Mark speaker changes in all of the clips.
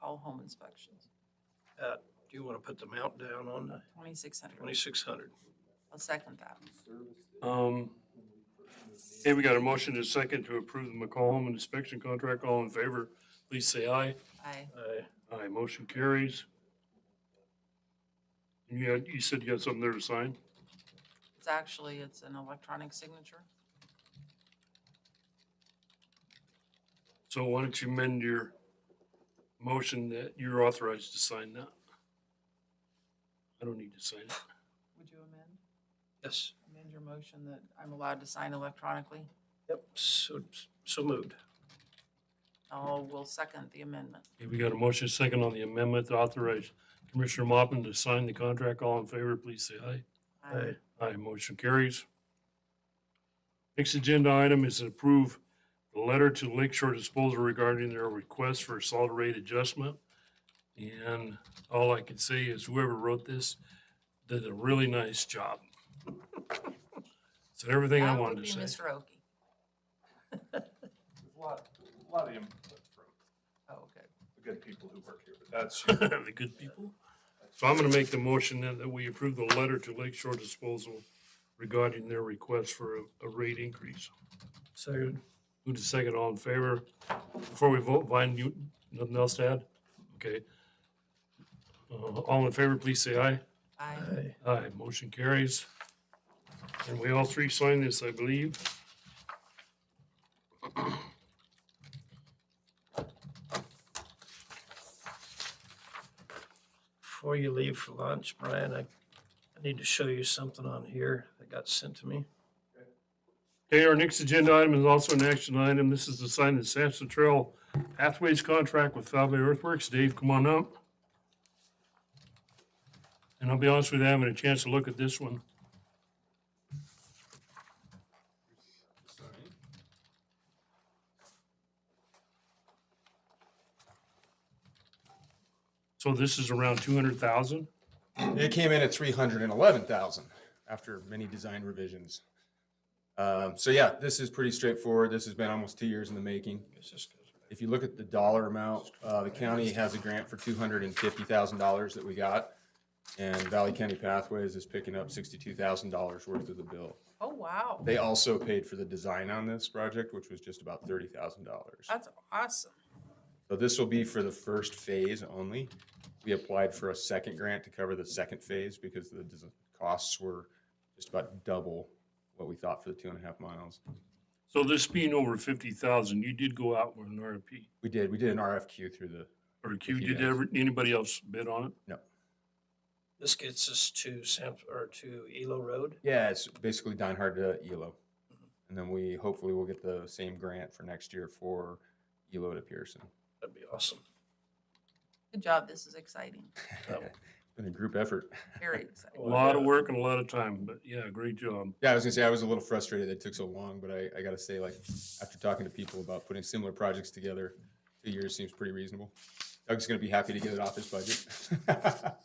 Speaker 1: all home inspections,
Speaker 2: Do you want to put the amount down on the
Speaker 1: twenty-six hundred.
Speaker 2: twenty-six hundred?
Speaker 1: I'll second that.
Speaker 3: Um, hey, we got a motion and a second to approve the McCall Home Inspection Contract. All in favor, please say aye.
Speaker 1: I,
Speaker 2: Aye.
Speaker 3: Aye, motion carries. And You had, you said you got something there to sign?
Speaker 1: it's actually, it's an electronic signature.
Speaker 3: So why don't you amend your motion that you're authorized to sign that? I don't need to sign it.
Speaker 1: Would you amend,
Speaker 2: Yes,
Speaker 1: amend your motion that I'm allowed to sign electronically?
Speaker 2: yep, so, so moved.
Speaker 1: Oh, we'll second the amendment.
Speaker 3: Okay, we got a motion second on the amendment to authorize Commissioner Mopin to sign the contract. All in favor, please say aye.
Speaker 1: I-
Speaker 2: Aye.
Speaker 3: Aye, motion carries. Next agenda item is to approve the letter to Lake Shore Disposal regarding their request for a solid rate adjustment. And all I can say is whoever wrote this did a really nice job. Said everything I
Speaker 1: That would
Speaker 3: wanted
Speaker 1: be
Speaker 3: to say.
Speaker 1: Mr. Oki.
Speaker 4: There's a lot, a lot of input from
Speaker 1: Oh, okay.
Speaker 4: the good people who work here, but that's,
Speaker 3: The good people. So I'm gonna make the motion then that we approve the letter to Lake Shore Disposal regarding their request for a, a rate increase.
Speaker 2: Second.
Speaker 3: Move to second, all in favor. Before we vote, Vine, you, nothing else to add? Okay. Uh, all in favor, please say aye.
Speaker 1: I,
Speaker 2: Aye.
Speaker 3: Aye, motion carries. And we all three sign this, I believe.
Speaker 2: Before you leave for lunch, Brian, I, I need to show you something on here that got sent to me.
Speaker 3: Okay, our next agenda item is also an action item. This is to sign the Sampson Trail Pathways contract with Valley Earthworks. Dave, come on up. And I'll be honest with you, I haven't had a chance to look at this one. So this is around two hundred thousand?
Speaker 5: It came in at three hundred and eleven thousand after many design revisions. Um, so yeah, this is pretty straightforward. This has been almost two years in the making. If you look at the dollar amount, uh, the county has a grant for two hundred and fifty thousand dollars that we got. And Valley County Pathways is picking up sixty-two thousand dollars worth of the bill.
Speaker 1: oh, wow.
Speaker 5: They also paid for the design on this project, which was just about thirty thousand dollars.
Speaker 1: That's awesome.
Speaker 5: So this will be for the first phase only. We applied for a second grant to cover the second phase because the des- costs were just about double what we thought for the two and a half miles.
Speaker 3: So this being over fifty thousand, you did go out with an RFP?
Speaker 5: We did, we did an RFQ through the,
Speaker 3: Or Q,
Speaker 5: He
Speaker 3: did
Speaker 5: does.
Speaker 3: ever, anybody else bid on it?
Speaker 2: This gets us to Sam, or to Elo Road.
Speaker 5: yeah, it's basically Dinehard to Elo. And then we hopefully will get the same grant for next year for Elo to Pearson.
Speaker 2: That'd be awesome.
Speaker 1: Good job. This is exciting.
Speaker 2: Yep.
Speaker 5: Been a group effort.
Speaker 1: Very exciting.
Speaker 3: A
Speaker 2: Well,
Speaker 3: lot of
Speaker 2: yeah.
Speaker 3: work and a lot of time, but yeah, great job.
Speaker 5: Yeah, I was gonna say, I was a little frustrated that it took so long, but I, I gotta say, like, after talking to people about putting similar projects together, two years seems pretty reasonable. Doug's gonna be happy to get it off his budget.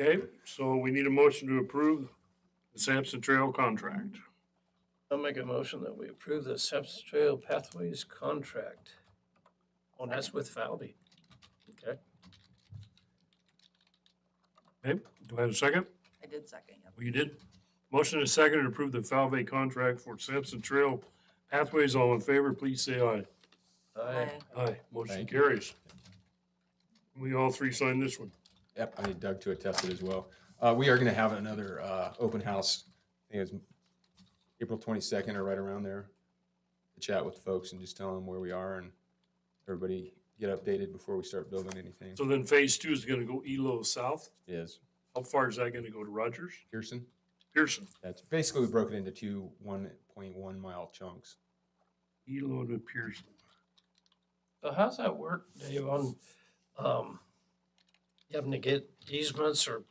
Speaker 3: Okay, so we need a motion to approve the Sampson Trail contract.
Speaker 2: I'll make a motion that we approve the Sampson Trail Pathways contract. Oh, and that's with Falvey. Okay,
Speaker 3: Okay, do I have a second?
Speaker 1: I did second it.
Speaker 3: Well, you did. Motion is second to approve the Falvey contract for Sampson Trail Pathways. All in favor, please say aye.
Speaker 2: aye.
Speaker 1: I,
Speaker 3: Aye, motion
Speaker 5: Thank
Speaker 3: carries. We all three signed this one.
Speaker 5: Yep, I need Doug to attest it as well. Uh, we are gonna have another, uh, open house, I think it's April twenty-second or right around there. to Chat with folks and just tell them where we are and everybody get updated before we start building anything.
Speaker 3: So then phase two is gonna go Elo South.
Speaker 5: Is
Speaker 3: How far is that gonna go to Rogers?
Speaker 5: Pearson?
Speaker 3: Pearson?
Speaker 5: That's basically, we broke it into two one point one mile chunks.
Speaker 3: Elo to Pearson.
Speaker 2: So how's that work, Dave, on, um, you having to get easements or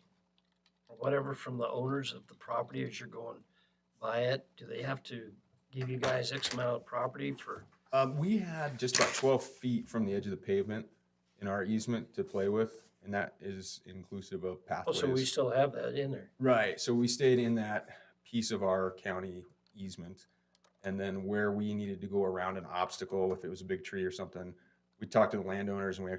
Speaker 2: or whatever from the owners of the property as you're going by it? Do they have to give you guys X amount of property for,
Speaker 5: Um, we had just about twelve feet from the edge of the pavement in our easement to play with, and that is inclusive of
Speaker 2: oh, so we
Speaker 5: pathways.
Speaker 2: still have that in there?
Speaker 5: Right, so we stayed in that piece of our county easement. And then where we needed to go around an obstacle, if it was a big tree or something, we talked to the landowners and we actually